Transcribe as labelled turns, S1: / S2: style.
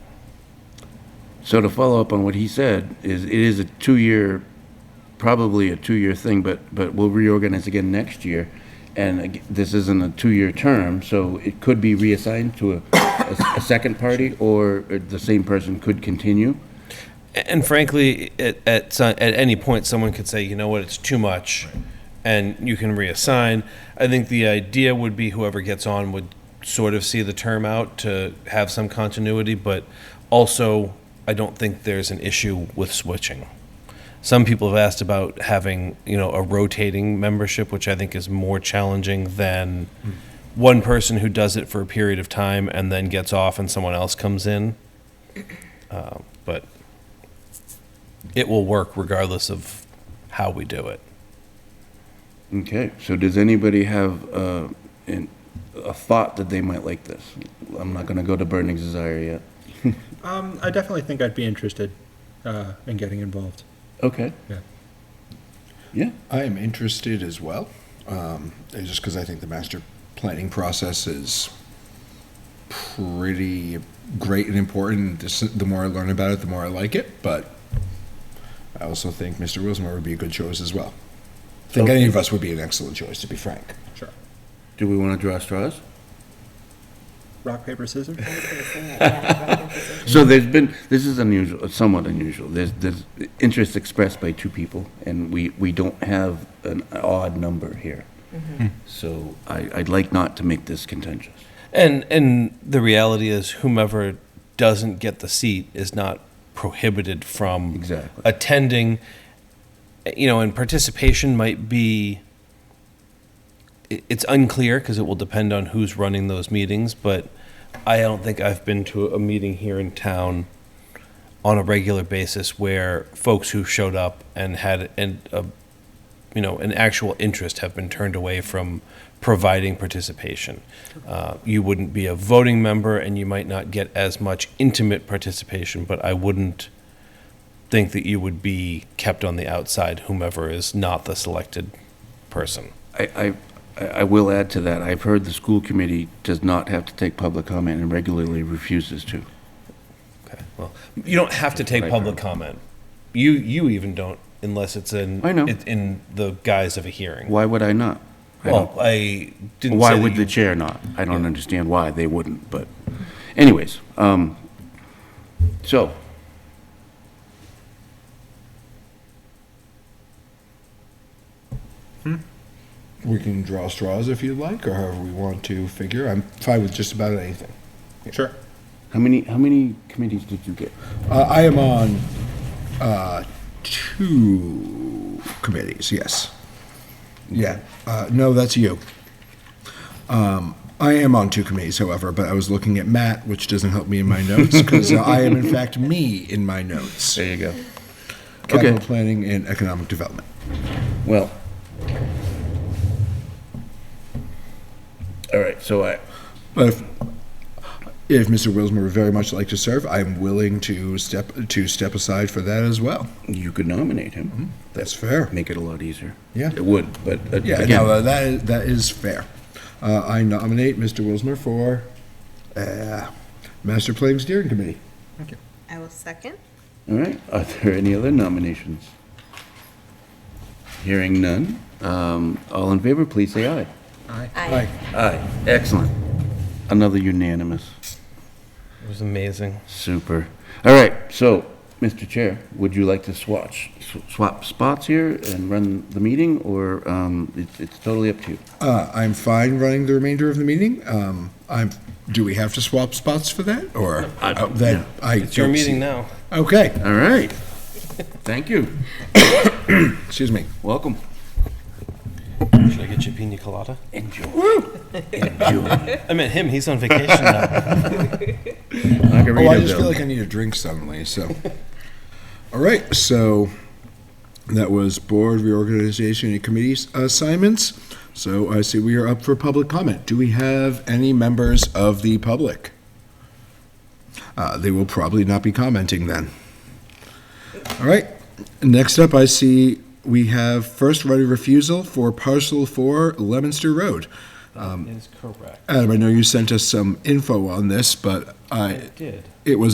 S1: So to follow up on what he said, is it is a two-year, probably a two-year thing, but, but we'll reorganize again next year. And ag- this isn't a two-year term, so it could be reassigned to a, a- a second party, or the same person could continue.
S2: And frankly, at, at, so- at any point, someone could say, you know what, it's too much, and you can reassign. I think the idea would be whoever gets on would sort of see the term out to have some continuity, but also, I don't think there's an issue with switching. Some people have asked about having, you know, a rotating membership, which I think is more challenging than one person who does it for a period of time and then gets off and someone else comes in. Uh, But it will work regardless of how we do it.
S1: Okay, so does anybody have uh, an- a thought that they might like this? I'm not going to go to burning desire yet.
S3: Um, I definitely think I'd be interested uh, in getting involved.
S1: Okay.
S3: Yeah.
S1: Yeah,
S4: I am interested as well, um, it's just because I think the master planning process is pretty great and important. This, the more I learn about it, the more I like it. But I also think Mr. Wilsmore would be a good choice as well. I think any of us would be an excellent choice, to be frank.
S3: Sure.
S1: do we want to draw straws?
S3: Rock, paper, scissors?
S1: So there's been, this is unusual, somewhat unusual. There's, there's interest expressed by two people, and we, we don't have an odd number here. Mm-hmm. So I, I'd like not to make this contentious.
S2: And and the reality is whomever doesn't get the seat is not prohibited from
S1: Exactly.
S2: attending you know and participation might be it- it's unclear because it will depend on who's running those meetings but I don't think I've been to a meeting here in town on a regular basis where folks who showed up and had an, a you know, an actual interest have been turned away from providing participation. Uh, You wouldn't be a voting member, and you might not get as much intimate participation, but I wouldn't think that you would be kept on the outside, whomever is not the selected person.
S1: I, I, I will add to that, I've heard the school committee does not have to take public comment and regularly refuses to.
S2: Okay, well, you don't have to take
S1: Right.
S2: public comment. You, you even don't, unless it's in,
S1: I know.
S2: it's in the guise of a hearing.
S1: Why would I not? I don't-
S2: Well, I didn't
S1: Why
S2: say that
S1: would the
S2: you-
S1: chair not? I don't understand why they wouldn't, but anyways, um, so.
S4: We can draw straws if you'd like, or however we want to figure. I'm fine with just about anything.
S3: Sure.
S1: How many, how many committees did you get?
S4: Uh, I am on uh, two committees, yes. Yeah, uh, no, that's you. Um, I am on two committees, however, but I was looking at Matt, which doesn't help me in my notes, because I am in fact me in my notes.
S1: you go.
S4: Capital
S1: Okay.
S4: planning and economic development.
S1: Well. All right, so I,
S4: But if, if Mr. Wilsmer would very much like to serve, I'm willing to step, to step aside for that as well.
S1: you could nominate him.
S4: That's fair.
S1: Make it a lot easier.
S4: Mm-hmm. Yeah.
S1: It would, but uh,
S4: Yeah, no,
S1: again,
S4: uh, that is, that is fair. Uh, I nominate Mr. Wilsmer for uh, Master Planning Steering Committee.
S5: I will second.
S1: all right, are there any other nominations? Hearing none, um, all in favor, please say aye.
S3: Aye.
S5: Aye.
S1: Aye. Excellent. Another unanimous.
S2: It was amazing.
S1: Super. All right, so, Mr. Chair, would you like to swatch, sw- swap spots here and run the meeting, or um, it's it's totally up to you?
S4: Uh, I'm fine running the remainder of the meeting. Um, I'm, do we have to swap spots for that, or? uh, that I
S2: It's your
S4: don't see-
S2: meeting now.
S4: Okay,
S1: All right. Thank you.
S4: excuse me.
S1: Welcome.
S2: Should I get you a pina colada?
S1: Enjoy. Enjoy.
S2: I meant him. He's on vacation now.
S4: Oh, I just
S1: Margarita,
S4: feel
S1: though.
S4: like I need a drink suddenly, so. All right, so that was board reorganization and committee assignments. So I see we are up for public comment. Do we have any members of the public? Uh, they will probably not be commenting then. All right, next up, I see we have first right of refusal for parcel four Lemonster Road. Um,
S2: is correct.
S4: Adam, I know you sent us some info on this, but I,
S2: did.
S4: it was